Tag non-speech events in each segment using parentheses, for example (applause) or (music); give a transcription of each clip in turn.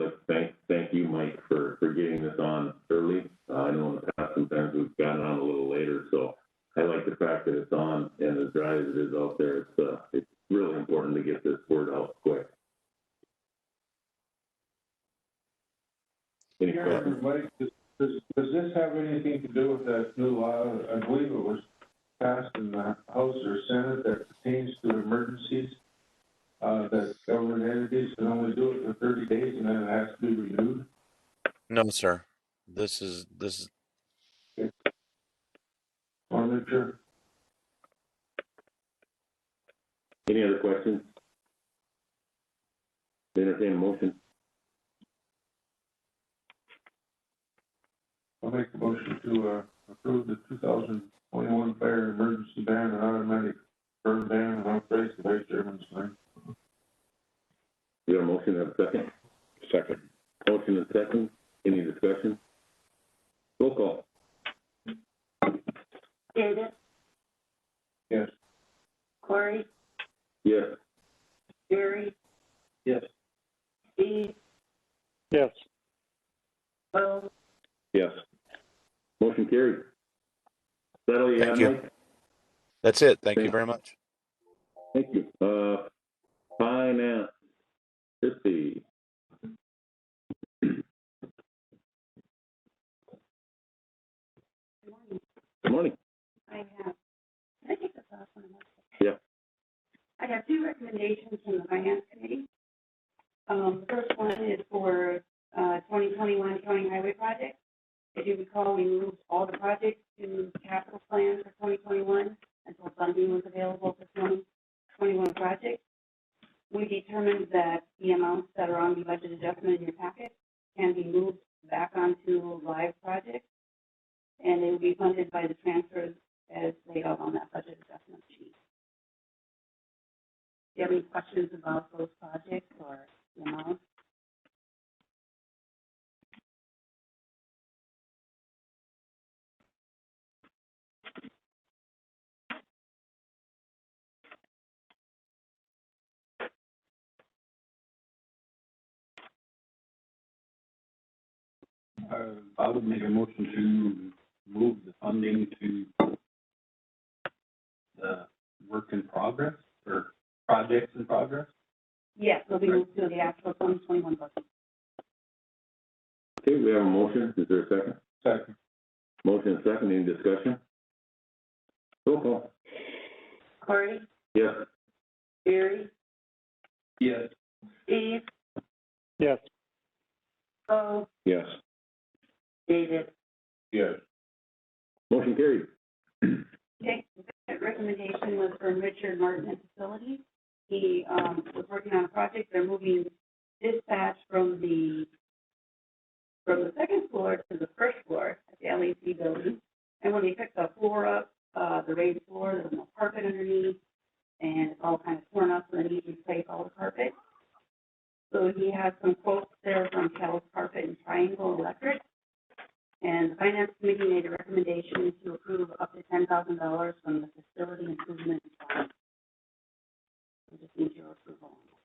Uh, uh, Any questions? Chairman, wait, does, does does this have anything to do with that new law? I believe it was passed in the House or Senate that pertains to emergencies. Uh, that government entities can only do it for thirty days and then it has to be renewed. No, sir. This is, this is, I'm sure. Any other questions? Entertain a motion. I'll make a motion to, uh, approve the two thousand twenty-one fire emergency ban and automatic burn ban and I'll phrase the vice chairman's name. You have a motion and a second? Second. Motion and second. Any discussion? Roll call. Davis, Yes. Corey, Yes. Gary. Yes. Steve, yes, Bo, Yes. Motion carried. Is that all you have, Thank you. Mike? that's it. Thank you Thank- very much. Thank you. Uh, finance, let's see. Good morning. I have, I think the last one. was- Yeah. I have two recommendations from the finance committee. Um, the first one is for, uh, twenty twenty-one county highway project. If you recall, we moved all the projects to capital plan for twenty twenty-one until funding was available for twenty twenty-one projects. We determined that the amounts that are on the budget adjustment in your packet can be moved back onto live projects. And they will be funded by the transfers as laid out on that budget adjustment sheet. Do you have any questions about those projects or the amounts? Uh, I would make a motion to move the funding to the work in progress or projects in progress. Yes, they'll be moved to the actual twenty twenty-one budget. Okay, we have a motion. Is there a second? Second. Motion and second. Any discussion? Roll call. Corey, Yes. Barry, Yes. Steve, yes. Bo, Yes. David. Yes. Motion carried. Okay, the second recommendation was from Richard Martin at Facilities. He, um, was working on a project, they're moving dispatch from the, from the second floor to the first floor at the LAC building. And when they picked the floor up, uh, the raised floor, there was no carpet underneath, and it's all kind of torn up, and they need to replace all the carpet. So he has some quotes there from Cal's Carpet and Triangle Electric. And the finance committee made a recommendation to approve up to ten thousand dollars from the facility improvement fund. We just need your approval. on that.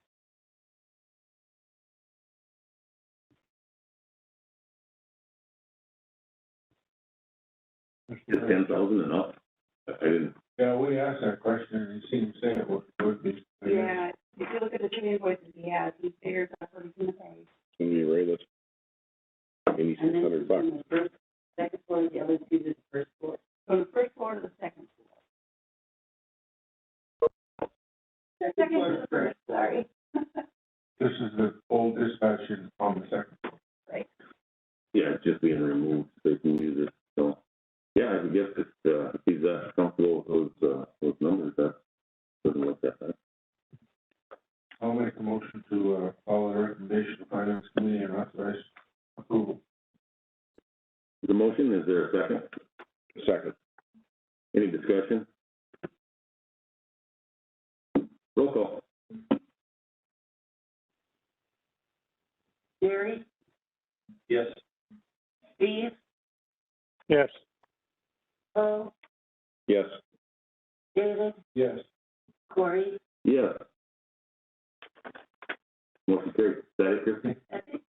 Is ten thousand and up? I didn't, Yeah, we asked that question and he seemed to say it would, would be. Yeah, if you look at the two invoices he has, he figures that's what he's gonna pay. can you rate us? Eighty-six And then hundred bucks. from the first, second floor to the other two to the first floor, from the first floor to the second floor. The second to the first, sorry. (laughs) This is the old dispatch unit on the second. Right, Yeah, it's just being removed, so you can use it, so. Yeah, I guess it's, uh, if he's uh, comfortable with those, uh, those numbers, that doesn't look that bad. I'll make a motion to, uh, follow the recommendation of finance committee and authorize approval. The motion, is there a second? Second. Any discussion? Roll call. Gary, Yes. Steve, Yes. Bo, Yes. David, Yes. Corey, Yes. Motion carried. Is that it, Christie? that's it.